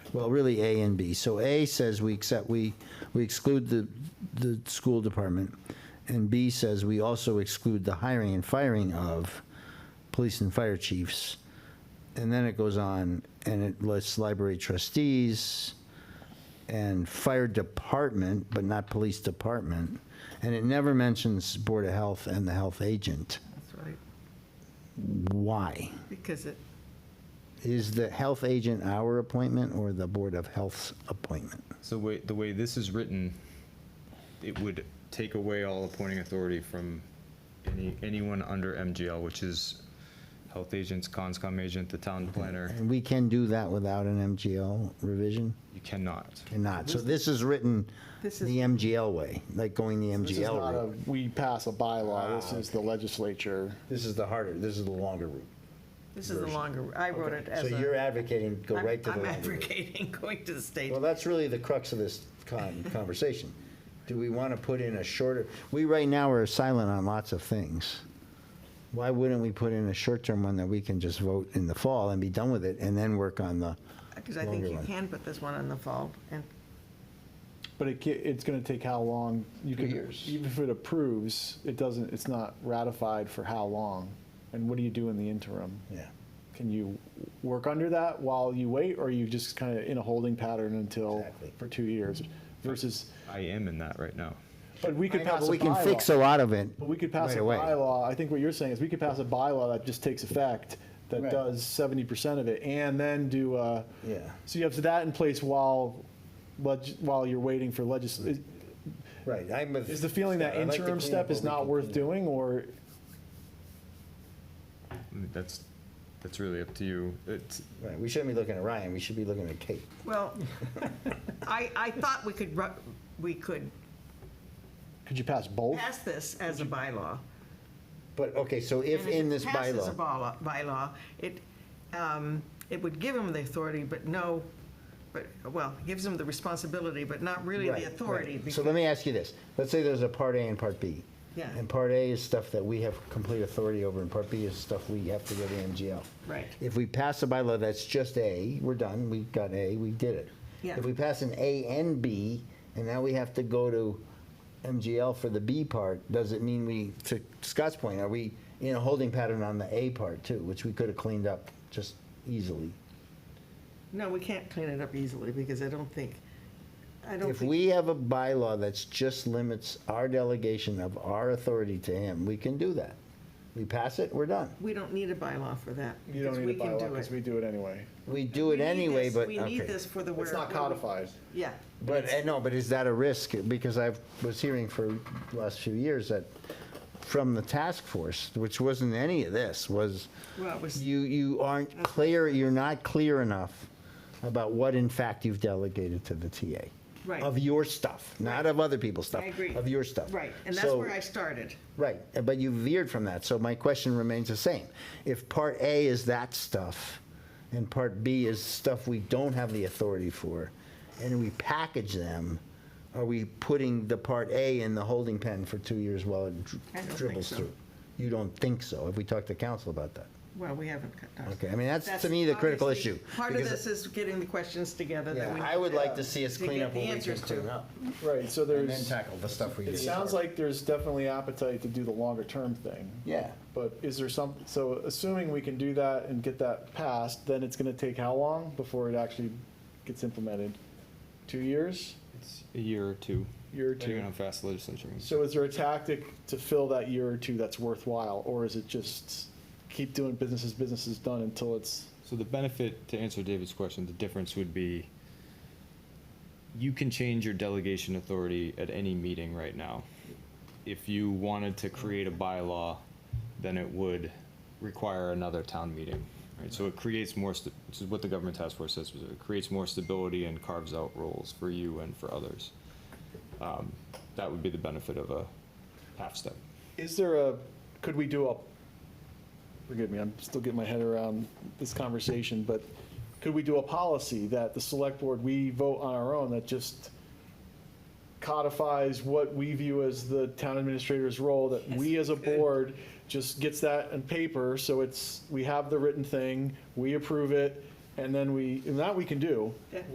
well, really A and B. So A says we accept, we, we exclude the, the school department. And B says we also exclude the hiring and firing of police and fire chiefs. And then it goes on and it lists library trustees and fire department, but not police department. And it never mentions Board of Health and the health agent. That's right, Why? because it, Is the health agent our appointment or the Board of Health's appointment? So way, the way this is written, it would take away all appointing authority from any, anyone under MGL, which is health agents, conscom agent, the town planner. And we can do that without an MGL revision? You cannot. Cannot. So this is written the This is- MGL way, like going the This is MGL not a, route. we pass a bylaw, Ah, this is the legislature. This is the harder, this is the longer route. this is the longer, I wrote it as So a. you're advocating, go I'm- right to the I'm longer route. advocating going to the state. Well, that's really the crux of this con- conversation. Do we want to put in a shorter, we right now are silent on lots of things. Why wouldn't we put in a short-term one that we can just vote in the fall and be done with it and then work on the, Because I think longer you one. can put this one in the fall, and But it, ca- it's gonna take how long? You Two could- years. Even if it approves, it doesn't, it's not ratified for how long? And what do you do in the interim? yeah. Can you work under that while you wait, or are you just kind of in a holding pattern until, Exactly. for two years? Versus, I am in that right now. but we could I know, pass but a we can fix bylaw. a lot of it But we could pass right a away. bylaw, I think what you're saying is we could pass a bylaw that just takes effect, that Right. does seventy percent of it, and then do a. Yeah. So you have that in place while, leg- while you're waiting for legis, is- Right, I'm. with is the feeling that Scott. I like the interim step cleanup, is but we not can worth clean doing, or I mean, That's, that's really up to you. It's, up. Right, we shouldn't be looking at Ryan, we should be looking at Kate. Well, I, I thought we could, ru- we could could you pass both? pass this as a bylaw. But, okay, so if And it in this Passes a bylaw, bylaw, bylaw, it, um, it would give him the authority, but no, but, well, gives him the responsibility, but not really Right, the right. authority. So because- let me ask you this. Let's say there's a Part A and Part B. Yeah. And Part A is stuff that we have complete authority over, and Part B is stuff we have to go to MGL. Right. If we pass a bylaw that's just A, we're done, we got A, we did it. Yeah. If we pass an A and B, and now we have to go to MGL for the B part, does it mean we, to Scott's point, are we in a holding pattern on the A part too, which we could have cleaned up just easily? No, we can't clean it up easily, because I don't think, I don't If think. we have a bylaw that's just limits our delegation of our authority to him, we can do that. We pass it, we're done. We don't need a bylaw for that. You don't because need a we can bylaw, do because it. we do it anyway. We do We it need anyway, this- but, We need okay. this for the. It's where- not codified. Yeah, But, uh, no, but is that a risk? Because I was hearing for the last few years that from the task force, which wasn't any of this, was well, it was, you, you aren't clear, you're not clear enough about what in fact you've delegated to the TA. Right. Of your stuff, not of other people's stuff. I agree. Of your stuff. right, and that's So- where I started. Right, uh, but you veered from that, so my question remains the same. If part A is that stuff, and part B is stuff we don't have the authority for, and we package them, are we putting the part A in the holding pen for two years while it dri- I don't think dribbles so. through? You don't think so? Have we talked to council about that? Well, we haven't cut down. Okay, I mean, that's to me the critical obviously- issue. Part of because- this is getting the questions together that Yeah, we. I would like to see us to clean get up the what we can answers to. clean up, Right, so and then there's, tackle the stuff we did. it sounds like there's definitely appetite to do the longer term thing. Yeah. But is there some, so assuming we can do that and get that passed, then it's gonna take how long before it actually gets implemented? Two years? it's a year or two. Year or Depending on two? how fast the legislature moves. So is there a tactic to fill that year or two that's worthwhile, or is it just keep doing business as business is done until it's, So the benefit, to answer David's question, the difference would be you can change your delegation authority at any meeting right now. If you wanted to create a bylaw, then it would require another town meeting. Right, so it creates more, sta- which is what the government task force says, was it creates more stability and carves out roles for you and for others. Um, That would be the benefit of a half step. is there a, could we do a, forgive me, I'm still getting my head around this conversation, but could we do a policy that the select board, we vote on our own that just codifies what we view as the town administrator's role, that we as a board just gets that on paper, so it's, we have the written thing, we approve it, and then we, and that we can do. Yeah.